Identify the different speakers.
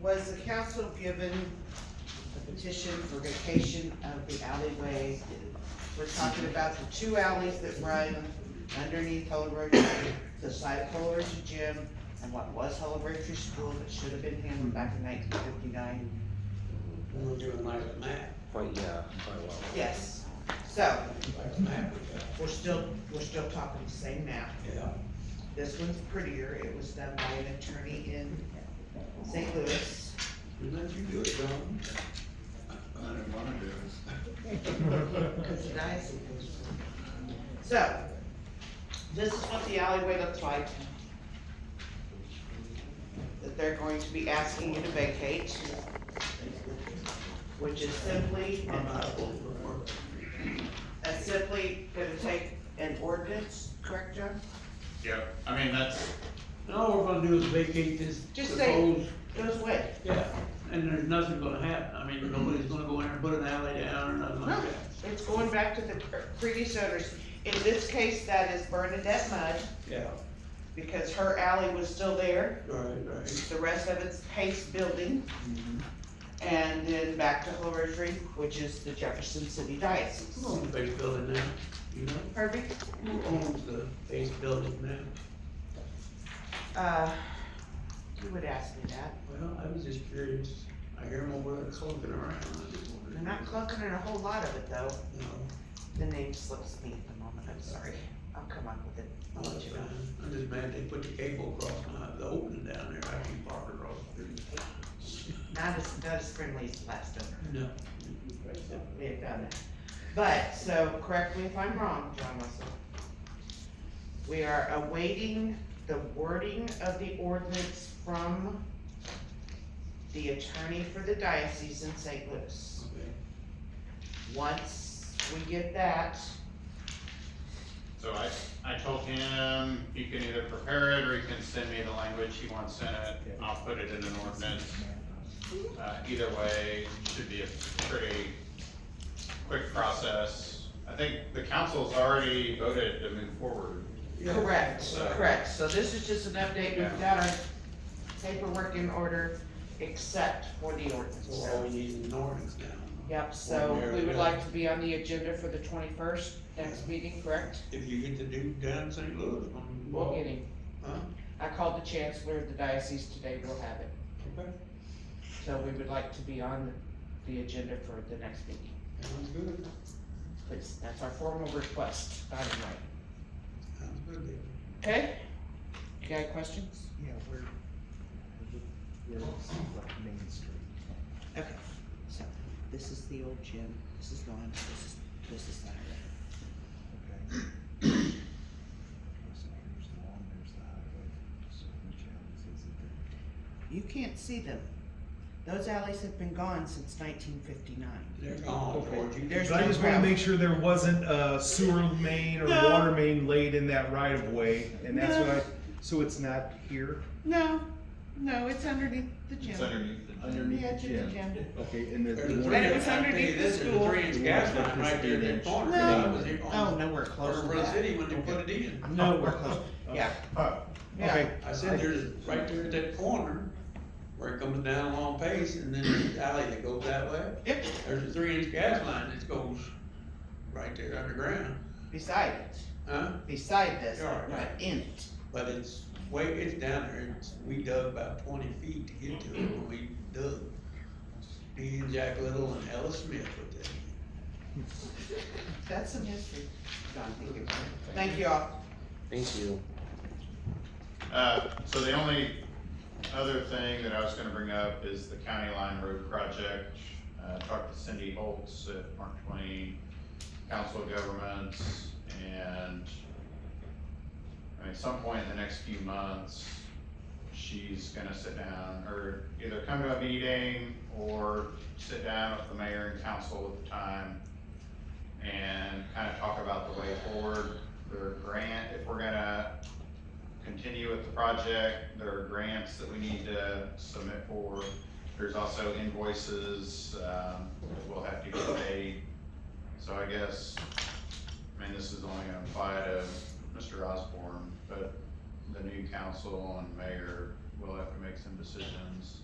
Speaker 1: was the council given a petition for vacation of the alleyway? We're talking about the two alleys that run underneath Holbrook, the side of Holbrook Gym and what was Holbrook School that should have been handled back in nineteen fifty-nine.
Speaker 2: We're doing like a map,
Speaker 3: Quite, yeah, quite well.
Speaker 1: Yes, so,
Speaker 2: like a map we got,
Speaker 1: we're still, we're still talking the same map.
Speaker 2: yeah.
Speaker 1: This one's prettier, it was done by an attorney in St. Louis.
Speaker 2: And let you do it, John.
Speaker 4: I didn't wanna do
Speaker 1: Cause
Speaker 4: it.
Speaker 1: the diocese was- So, this is what the alleyway looks like. That they're going to be asking you to vacate. Which is simply, uh,
Speaker 2: I'm not overworked.
Speaker 1: that's simply gonna take an ordinance, correct, John?
Speaker 4: Yep, I mean, that's,
Speaker 2: And all we're gonna do is vacate this
Speaker 1: Just
Speaker 2: proposed,
Speaker 1: say, goes away.
Speaker 2: yeah, and there's nothing gonna happen, I mean, nobody's gonna go in and put an alley down or nothing like
Speaker 1: No,
Speaker 2: that.
Speaker 1: it's going back to the pre- previous owners. In this case, that is Bernadette Mudd,
Speaker 2: Yeah,
Speaker 1: because her alley was still there.
Speaker 2: right, right.
Speaker 1: The rest of it's Pace Building.
Speaker 2: Mhm.
Speaker 1: And then back to Rosary, which is the Jefferson City
Speaker 2: Who
Speaker 1: Diocese.
Speaker 2: owns the base building now, you know,
Speaker 1: Harvey?
Speaker 2: who owns the base building now?
Speaker 1: Uh, you would ask me that.
Speaker 2: Well, I was just curious, I hear them over there clunking around. I just wondered.
Speaker 1: They're not clunking in a whole lot of it though.
Speaker 2: No,
Speaker 1: The name slips me at the moment, I'm sorry. I'll come up with it.
Speaker 2: no,
Speaker 1: I'll let
Speaker 2: that's
Speaker 1: you know.
Speaker 2: fine. I'm just mad they put the cable across, my- the opening down there, I can park across the street.
Speaker 1: Not as, not as friendly as the last owner.
Speaker 2: No.
Speaker 1: We have done that. But, so correct me if I'm wrong, John Russell. We are awaiting the wording of the ordinance from the attorney for the diocese in St. Louis.
Speaker 2: Okay.
Speaker 1: Once we get that,
Speaker 4: so I, I told him, you can either prepare it or you can send me the language he wants in it. I'll put it in an ordinance. Uh, either way, it should be a pretty quick process. I think the council's already voted to move forward.
Speaker 2: Yeah.
Speaker 1: correct,
Speaker 4: So-
Speaker 1: correct, so this is just an update, we've
Speaker 4: Yeah.
Speaker 1: got our paperwork in order, except for the ordinance,
Speaker 2: So all
Speaker 1: so.
Speaker 2: we need is an ordinance now.
Speaker 1: Yep, so
Speaker 2: One year
Speaker 1: we would
Speaker 2: ago.
Speaker 1: like to be on the agenda for the twenty-first, next meeting, correct?
Speaker 2: If you get the dude down in St. Louis, I'm.
Speaker 1: We'll get him.
Speaker 2: Huh?
Speaker 1: I called the chancellor of the diocese today, we'll have it,
Speaker 2: Okay,
Speaker 1: so we would like to be on the agenda for the next meeting,
Speaker 2: sounds good,
Speaker 1: please, that's our formal request, not in writing.
Speaker 2: sounds good. Dave.
Speaker 1: okay? You got any questions?
Speaker 5: Yeah, we're, we're like Main Street.
Speaker 1: Okay, so, this is the old gym, this is lawn, this is, this is that.
Speaker 5: Okay. So here's the lawn, there's the highway, so which alleys is it that?
Speaker 1: You can't see them. Those alleys have been gone since nineteen fifty-nine.
Speaker 2: They're gone, George, you.
Speaker 1: There's
Speaker 6: But I just wanna
Speaker 1: Wow.
Speaker 6: make sure there wasn't a sewer main or
Speaker 1: No.
Speaker 6: water main laid in that right of way, and that's what
Speaker 1: No.
Speaker 6: I, so it's not here?
Speaker 1: No, no, it's underneath the
Speaker 4: It's
Speaker 1: gym.
Speaker 4: underneath the.
Speaker 1: Underneath the edge of the gym.
Speaker 5: Okay, and
Speaker 2: There's a
Speaker 5: the.
Speaker 2: three-
Speaker 1: Right, it was
Speaker 2: I tell you,
Speaker 1: underneath the
Speaker 2: This is a
Speaker 1: school.
Speaker 2: three inch gas line right there in that corner.
Speaker 1: No.
Speaker 2: that was there
Speaker 1: Oh,
Speaker 2: on-
Speaker 1: nowhere close
Speaker 2: Or
Speaker 1: to
Speaker 2: Run
Speaker 1: that.
Speaker 2: City when they put it in.
Speaker 6: Nowhere close.
Speaker 1: Yeah.
Speaker 6: Oh, okay.
Speaker 2: I said, there's, right there at that corner, where it comes down along Pace, and then the alley that goes that way,
Speaker 1: Yep,
Speaker 2: there's a three inch gas line that goes right there underground,
Speaker 1: beside it,
Speaker 2: huh?
Speaker 1: beside this,
Speaker 2: Yeah,
Speaker 1: not
Speaker 2: right.
Speaker 1: in it.
Speaker 2: But it's way, it's down there, it's, we dug about twenty feet to get to it when we dug. Me and Jack Little and Ellis Smith with that.
Speaker 1: That's some history. John, thank you. Thank you all.
Speaker 3: Thank you.
Speaker 4: Uh, so the only other thing that I was gonna bring up is the county line road project. Uh, talked to Cindy Holtz at Mark Twain Council of Governments and I mean, at some point in the next few months, she's gonna sit down or either come to a meeting or sit down with the mayor and council at the time and kind of talk about the way forward, their grant, if we're gonna continue with the project, there are grants that we need to submit for. There's also invoices, um, that will have to get paid. So I guess, I mean, this is only gonna apply to Mr. Osborne, but the new council and mayor will have to make some decisions.